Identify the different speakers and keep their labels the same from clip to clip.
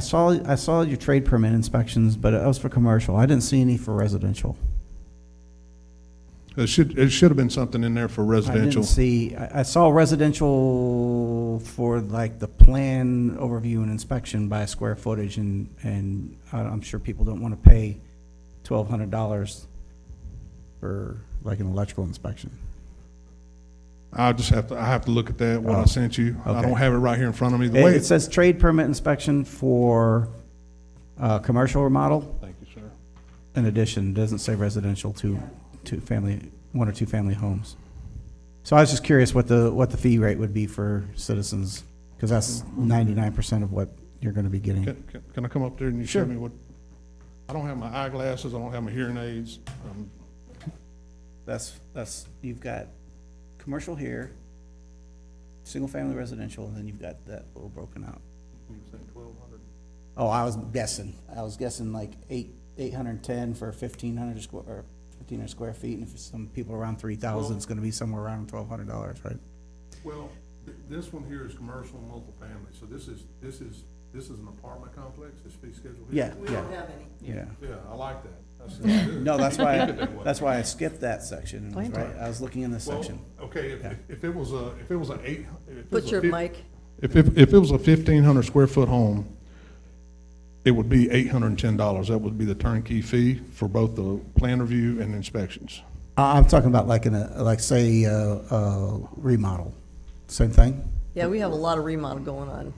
Speaker 1: I saw, I saw your trade permit inspections, but that was for commercial. I didn't see any for residential.
Speaker 2: It should, it should have been something in there for
Speaker 1: I didn't
Speaker 2: residential.
Speaker 1: see, I, I saw residential for like the plan overview and inspection by square footage and, and I- I'm sure people don't want to pay twelve hundred dollars for like an electrical inspection.
Speaker 2: I'll just have to, I have to look at that, what
Speaker 1: Oh,
Speaker 2: I sent you. I
Speaker 1: okay.
Speaker 2: don't have it right here in front of me. The
Speaker 1: It
Speaker 2: way,
Speaker 1: it says trade permit inspection for, uh, commercial remodel
Speaker 2: thank you, sir.
Speaker 1: in addition, it doesn't say residential to, to family, one or two family homes. So I was just curious what the, what the fee rate would be for citizens, because that's ninety-nine percent of what you're gonna be getting.
Speaker 2: Can, can- can I come up there and you show
Speaker 1: Sure.
Speaker 2: me what? I don't have my eyeglasses, I don't have my hearing aids. Um,
Speaker 1: That's, that's, you've got commercial here, single-family residential, and then you've got that little broken out. Oh, I was guessing, I was guessing like eight, eight hundred and ten for fifteen hundred square, or fifteen hundred square feet, and if some people around three thousand, it's gonna be somewhere around twelve hundred dollars, right?
Speaker 2: Well, th- this one here is commercial and multifamily, so this is, this is, this is an apartment complex, this fee schedule
Speaker 1: Yeah,
Speaker 2: here?
Speaker 3: We
Speaker 1: yeah,
Speaker 3: don't have any.
Speaker 1: yeah.
Speaker 2: Yeah, I like that. That's- that's good.
Speaker 1: No, that's why,
Speaker 2: Keep it that way.
Speaker 1: that's why I skipped that section, and I was right, I was looking in this
Speaker 2: Well,
Speaker 1: section.
Speaker 2: Okay, if,
Speaker 1: Yeah.
Speaker 2: if it was a, if it was an eight. if it was
Speaker 3: Put
Speaker 2: a
Speaker 3: your
Speaker 2: fif-
Speaker 3: mic,
Speaker 2: If, if, if it was a fifteen hundred square foot home, it would be eight hundred and ten dollars. That would be the turnkey fee for both the plan review and inspections.
Speaker 1: I- I'm talking about like in a, like say, uh, uh, remodel, same thing?
Speaker 3: yeah, we have a lot of remodel going on.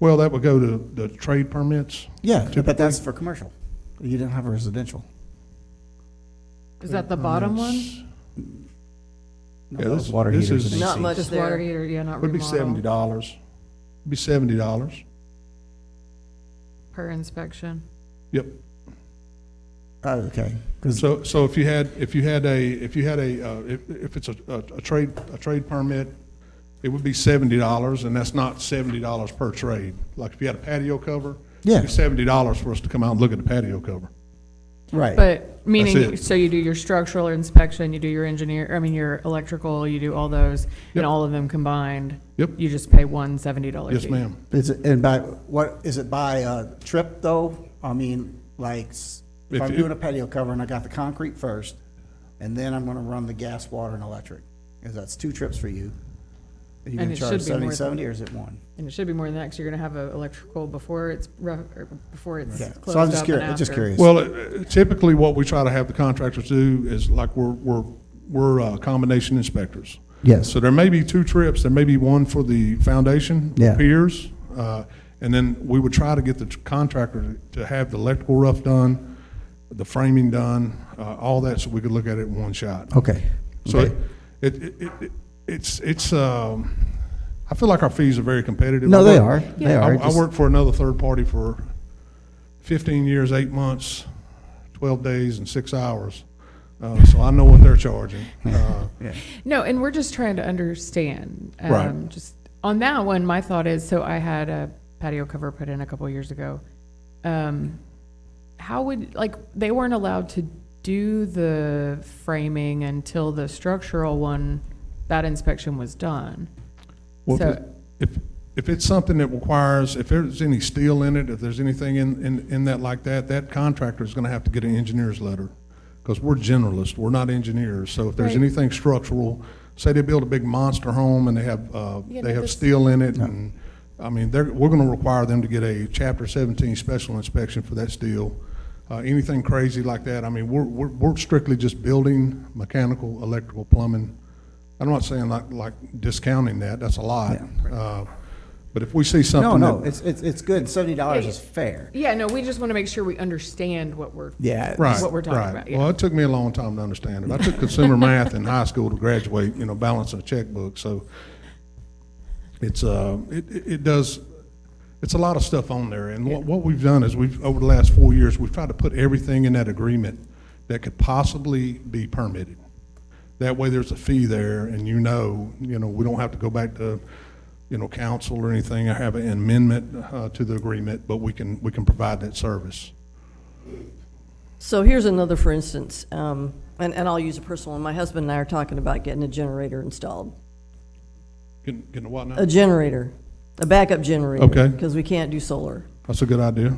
Speaker 2: Well, that would go to the trade permits.
Speaker 1: Yeah, but that's for commercial. You didn't have a residential.
Speaker 4: Is that the bottom one?
Speaker 1: No,
Speaker 2: Yeah,
Speaker 1: that
Speaker 2: this-
Speaker 1: was water
Speaker 2: this
Speaker 1: heaters
Speaker 2: is-
Speaker 1: and
Speaker 3: Not
Speaker 1: AC.
Speaker 3: much
Speaker 4: Just water
Speaker 3: there.
Speaker 4: heater, yeah, not
Speaker 2: Would be seventy
Speaker 4: remodel,
Speaker 2: dollars. Be seventy dollars.
Speaker 4: per inspection.
Speaker 2: Yep.
Speaker 1: Oh, okay, 'Cause-
Speaker 2: So, so if you had, if you had a, if you had a, uh, if, if it's a, a a trade, a trade permit, it would be seventy dollars, and that's not seventy dollars per trade. Like if you had a patio cover, it'd
Speaker 1: Yeah.
Speaker 2: be seventy dollars for us to come out and look at the patio cover.
Speaker 1: right,
Speaker 4: But, meaning,
Speaker 2: it.
Speaker 4: so you do your structural inspection, you do your engineer, I mean, your electrical, you do all those,
Speaker 2: Yep.
Speaker 4: and all of them combined?
Speaker 2: Yep.
Speaker 4: You just pay one seventy dollar fee?
Speaker 2: Yes, ma'am.
Speaker 1: is it, and by, what, is it by, uh, trip though? I mean, like, s- if
Speaker 2: If
Speaker 1: I'm
Speaker 2: it-
Speaker 1: doing a patio cover and I got the concrete first, and then I'm gonna run the gas, water, and electric, cause that's two trips for you. Are you
Speaker 4: And
Speaker 1: gonna
Speaker 4: it should
Speaker 1: charge
Speaker 4: be more
Speaker 1: seventy,
Speaker 4: than-
Speaker 1: seventy, or is it one?
Speaker 4: And it should be more than that, 'cause you're gonna have a electrical before it's, rough- or before it's
Speaker 1: Yeah,
Speaker 4: closed
Speaker 1: so I'm just
Speaker 4: up and
Speaker 1: curious, just
Speaker 4: after.
Speaker 1: curious.
Speaker 2: Well, uh, typically, what we try to have the contractors do is like, we're, we're, we're uh, combination inspectors.
Speaker 1: Yes.
Speaker 2: So there may be two trips, there may be one for the foundation,
Speaker 1: Yeah.
Speaker 2: piers, uh, and then we would try to get the contractor to have the electrical rough done, the framing done, uh, all that, so we could look at it in one shot.
Speaker 1: Okay.
Speaker 2: So
Speaker 1: okay.
Speaker 2: it, it, it, it- it's, it's, um, I feel like our fees are very competitive.
Speaker 1: No,
Speaker 2: I
Speaker 1: they
Speaker 2: work-
Speaker 1: are, they are.
Speaker 2: I, I
Speaker 1: just-
Speaker 2: worked for another third party for fifteen years, eight months, twelve days, and six hours. Uh, so I know what they're charging. Uh,
Speaker 1: yeah.
Speaker 4: No, and we're just trying to understand.
Speaker 2: Right.
Speaker 4: Um, Just on that one, my thought is, so I had a patio cover put in a couple years ago. Um, how would, like, they weren't allowed to do the framing until the structural one, that inspection was done.
Speaker 2: Well,
Speaker 4: So-
Speaker 2: if, if it's something that requires, if there's any steel in it, if there's anything in, in, in that like that, that contractor is gonna have to get an engineer's letter. Cause we're generalists, we're not engineers, so if there's
Speaker 4: Right.
Speaker 2: anything structural, say they build a big monster home and they have, uh,
Speaker 4: Yeah,
Speaker 2: they
Speaker 4: no,
Speaker 2: have
Speaker 4: this-
Speaker 2: steel in it and, I mean, they're, we're gonna require them to get a chapter seventeen special inspection for that steel. Uh, anything crazy like that, I mean, we're, we're, we're strictly just building, mechanical, electrical, plumbing. I'm not saying like, like discounting that, that's a lot. Uh, But if we see
Speaker 1: No,
Speaker 2: something
Speaker 1: no,
Speaker 2: that,
Speaker 1: it's, it's, it's good. Seventy dollars
Speaker 4: Yeah,
Speaker 1: is fair.
Speaker 4: Yeah, no, we just want to make sure we understand what we're,
Speaker 1: Yeah.
Speaker 2: right,
Speaker 4: what we're talking
Speaker 2: right.
Speaker 4: about, yeah.
Speaker 2: Well, it took me a long time to understand it. I took consumer math in high school to graduate, you know, balancing a checkbook, so it's, uh, it, it it does, it's a lot of stuff on there. And what, what we've done is we've, over the last four years, we've tried to put everything in that agreement that could possibly be permitted. That way, there's a fee there, and you know, you know, we don't have to go back to, you know, council or anything, or have an amendment uh, to the agreement, but we can, we can provide that service.
Speaker 3: So here's another, for instance, um, and, and I'll use a personal one. My husband and I are talking about getting a generator installed.
Speaker 2: Can, can what now?
Speaker 3: A generator, a backup generator.
Speaker 2: Okay.
Speaker 3: Because we can't do solar.
Speaker 2: That's a good idea.